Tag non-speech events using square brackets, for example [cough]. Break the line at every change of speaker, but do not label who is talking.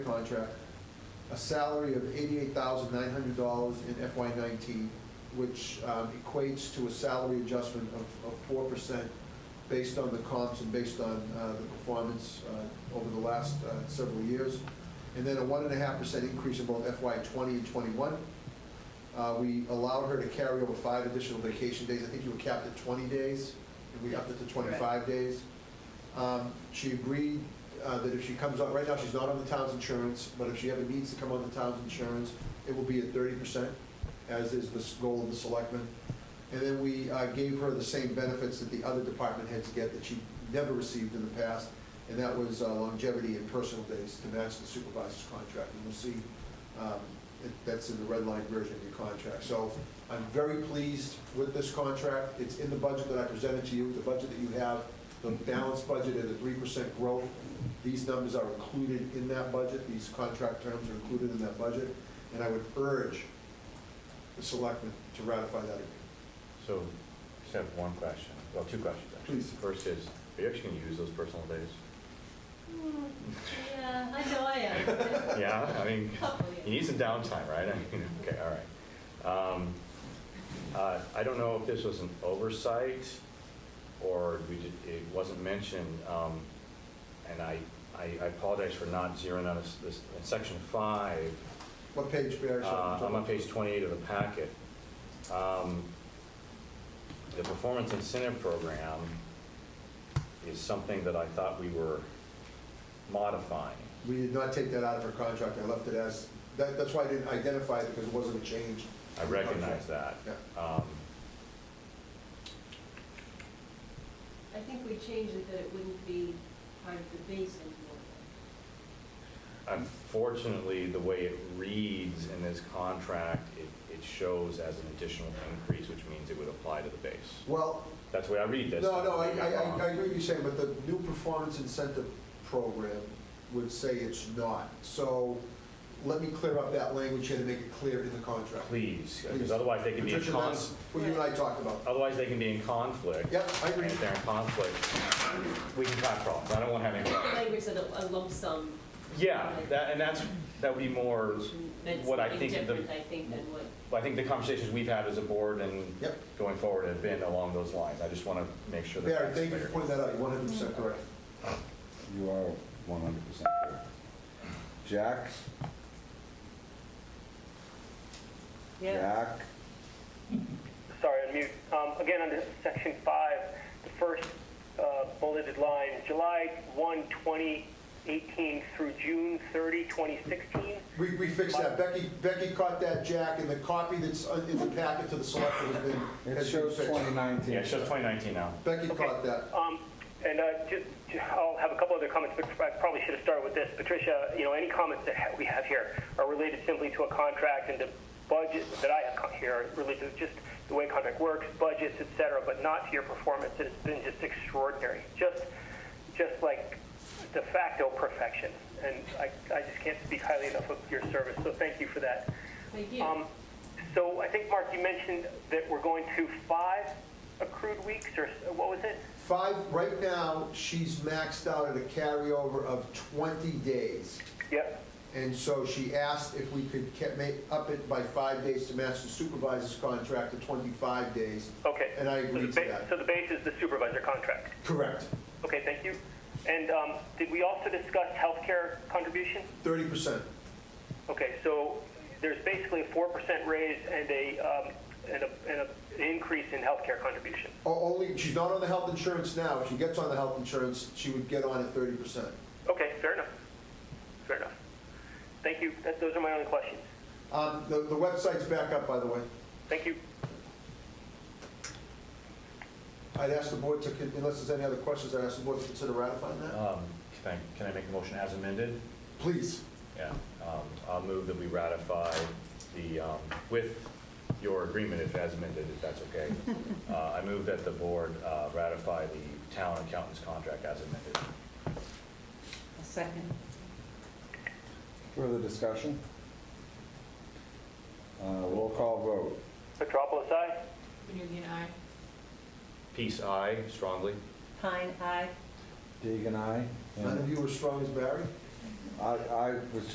contract, a salary of eighty-eight thousand nine hundred dollars in FY nineteen, which um, equates to a salary adjustment of, of four percent based on the comps and based on uh, the performance uh, over the last uh, several years. And then a one and a half percent increase in both FY twenty and twenty-one. Uh, We allowed her to carry over five additional vacation days. I think you were capped at twenty days, and we upped it to twenty-five days. Um, She agreed uh, that if she comes on, right now, she's not on the town's insurance, but if she ever needs to come on the town's insurance, it will be at thirty percent, as is the s- goal of the selectmen. And then we uh, gave her the same benefits that the other department heads get that she never received in the past, and that was uh, longevity and personal days to match the supervisor's contract. And you'll see um, it- that's in the red line version of your contract. So I'm very pleased with this contract. It's in the budget that I presented to you, the budget that you have, the balanced budget and the three percent growth. These numbers are included in that budget, these contract terms are included in that budget, and I would urge the selectmen to ratify that agreement.
So, just have one question, well, two questions, actually.
Please.
First is, are you actually gonna use those personal days?
Hmm, Yeah, I know I am.
[laughs] Yeah, I mean,
Couple,
you
yeah.
need some downtime, right? I mean, [laughs] okay, all right. Um, uh, I don't know if this was an oversight, or we did, it wasn't mentioned, um, and I, I I apologize for not zeroing out this, this, in section five,
What page, Barry?
Uh, I'm on page 28 of the packet. Um, The performance incentive program is something that I thought we were modifying.
We did not take that out of her contract, I left it as, that, that's why I didn't identify it, because it wasn't a change.
I recognize that.
Yeah.
Um,
I think we changed it that it wouldn't be part of the base anymore.
Unfortunately, the way it reads in this contract, it, it shows as an additional increase, which means it would apply to the base.
Well,
That's the way I read this.
No, no, I, I, I- I hear what you're saying, but the new performance incentive program would say it's not. So let me clear up that language here to make it clear in the contract.
Please, because
Please.
otherwise they can be in
Patricia,
con,
that's what you and I talked about.
otherwise they can be in conflict.
Yep, I
And
agree.
if they're in conflict, we can have problems. I don't want to have any problems.
Language said a a lump sum
Yeah, that, and that's, that would be more,
meant
What I
something
think the-
different, I think, than what,
I think the conversations we've had as a board and
Yep.
going forward have been along those lines. I just want to make sure that
Barry,
that's
thank you
clear.
for pointing that out, you're one hundred percent correct.
You are one hundred percent correct. Jack?
yeah,
Jack?
sorry, on mute. Um, Again, under section five, the first uh, bulleted line, July 1, 2018 through June 30, 2016.
We, we fixed that, Becky, Becky caught that, Jack, and the copy that's uh, in the packet to the selectmen has been,
It
has been
shows twenty
fixed.
nineteen.
Yeah, it shows 2019 now.
Becky caught that.
Um, And uh, ju- ju- I'll have a couple other comments, but I probably should have started with this. Patricia, you know, any comments that ha- we have here are related simply to a contract and the budget that I have co- here, are related to just the way contract works, budgets, et cetera, but not to your performance. It's been just extraordinary, just, just like de facto perfection. And I I just can't speak highly enough of your service, so thank you for that.
thank you.
Um, So I think, Mark, you mentioned that we're going to five accrued weeks, or s- what was it?
Five, right now, she's maxed out at a carryover of twenty days.
Yep.
And so she asked if we could ca- make, up it by five days to match the supervisor's contract to 25 days.
Okay.
And I
So the
agreed to
ba-
that.
So the base is the supervisor contract.
Correct.
Okay, thank you. And um, did we also discuss healthcare contribution?
30%.
Okay, so there's basically a 4% raise and a, um, and a, and a an increase in healthcare contribution.
O- Only, she's not on the health insurance now. If she gets on the health insurance, she would get on at 30%.
Okay, fair enough. Fair enough. Thank you. That- Those are my only questions.
Um, The the website's back up, by the way.
Thank you.
I'd ask the board to, con- unless there's any other questions, I'd ask the board to consider ratifying that.
Um, Can I, can I make a motion as amended?
Please.
Yeah. Um, I'll move that we ratify the, um, with your agreement if as amended, if that's
[laughs]
okay. Uh, I move that the board uh, ratify the town accountant's contract as amended.
A second.
Further discussion? Uh, roll call vote.
Petropolis, aye?
Union I.
Peace, aye, strongly.
Pine, aye.
Deegan, aye.
None of you are strong as Barry?
I, I was